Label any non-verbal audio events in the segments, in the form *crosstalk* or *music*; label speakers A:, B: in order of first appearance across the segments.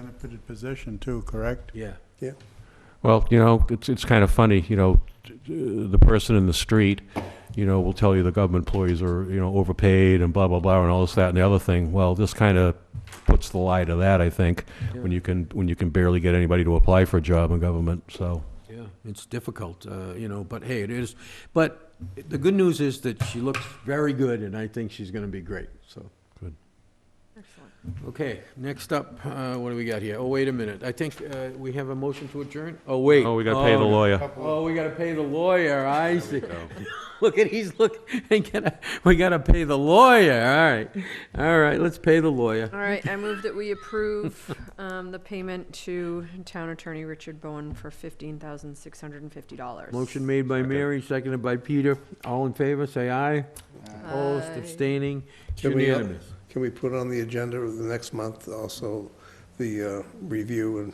A: benefited position too, correct?
B: Yeah.
C: Well, you know, it's, it's kind of funny, you know, t- t- the person in the street, you know, will tell you the government employees are, you know, overpaid and blah, blah, blah, and all this, that, and the other thing. Well, this kind of puts the lie to that, I think, when you can, when you can barely get anybody to apply for a job in government, so.
B: Yeah, it's difficult, uh, you know, but hey, it is. But the good news is that she looks very good, and I think she's going to be great, so.
D: Excellent.
B: Okay, next up, uh, what do we got here? Oh, wait a minute. I think uh, we have a motion to adjourn? Oh, wait.
C: Oh, we gotta pay the lawyer.
B: Oh, we got to pay the lawyer, I see. *laughs* Look *laughs* at, he's looking, we gotta, we got to pay the lawyer, all right. All right, let's pay the lawyer.
D: All right, I move that we approve um, the payment to Town Attorney Richard Bowen for $15,650.
B: Motion made by Mary, seconded by Peter. All in favor, say aye. Opposed,
D: Aye.
B: abstaining, It's
E: Can we-
B: unanimous.
E: Can we put on the agenda of the next month also the uh, review and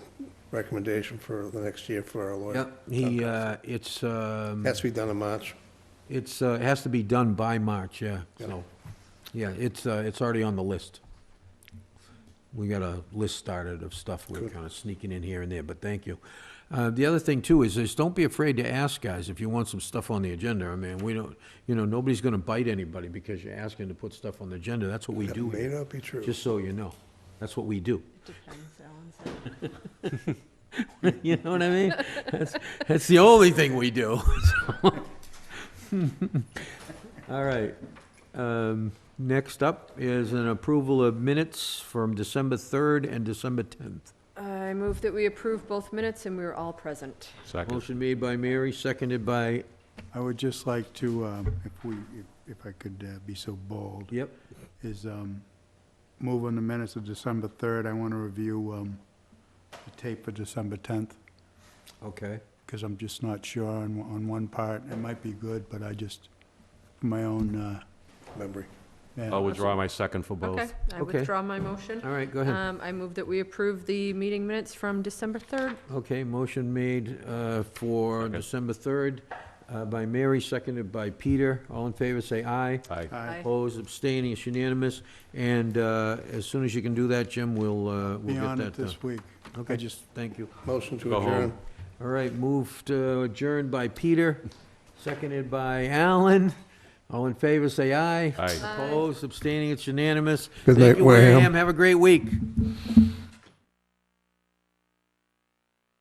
E: recommendation for the next year for our lawyer?
B: Yep, he, uh, it's, um,
E: Has to be done in March.
B: it's, uh, it has to be done by March, yeah,
E: Yeah.
B: so, yeah, it's, uh, it's already on the list. We got a list started of stuff we're
E: Good.
B: kind of sneaking in here and there, but thank you. Uh, the other thing too is, is don't be afraid to ask, guys, if you want some stuff on the agenda, I mean, we don't, you know, nobody's gonna bite anybody because you're asking to put stuff on the agenda, that's what we
E: That
B: do
E: May
B: here,
E: not be true.
B: just so you know, that's what we do.
D: Depends, Alan said.
B: *laughs* You know what I mean? That's, that's the only thing we do. *laughs* All right. Um, Next up is an approval of minutes from December 3rd and December 10th.
D: I move that we approve both minutes and we were all present.
C: Second.
B: Motion made by Mary, seconded by,
A: I would just like to, um, if we, if- if I could uh, be so bold,
B: yep,
A: is um, move on the minutes of December 3rd. I want to review um, the tape for December 10th,
B: okay.
A: because I'm just not sure on, on one part. It might be good, but I just, for my own, uh,
E: Memory.
A: yeah.
C: I'll withdraw my second for
D: Okay,
C: both.
D: I
B: Okay.
D: withdraw my motion.
B: All right, go ahead.
D: Um, I move that we approve the meeting minutes from December 3rd.
B: Okay, motion made uh, for
C: Second.
B: December 3rd uh, by Mary, seconded by Peter. All in favor, say aye.
C: Aye.
A: Aye.
B: Opposed, abstaining, it's unanimous. And uh, as soon as you can do that, Jim, we'll, uh, we'll
A: Be
B: get that done.
A: on it this week. I
B: Okay,
A: just,
B: thank you.
E: Motion to
C: Go home.
E: adjourn.
B: All right, moved, adjourned by Peter, seconded by Alan. All in favor, say aye.
C: Aye.
D: Aye.
B: Opposed, abstaining, it's unanimous.
E: Good
B: Thank
E: night,
B: you,
E: Wareham.
B: Have a great week.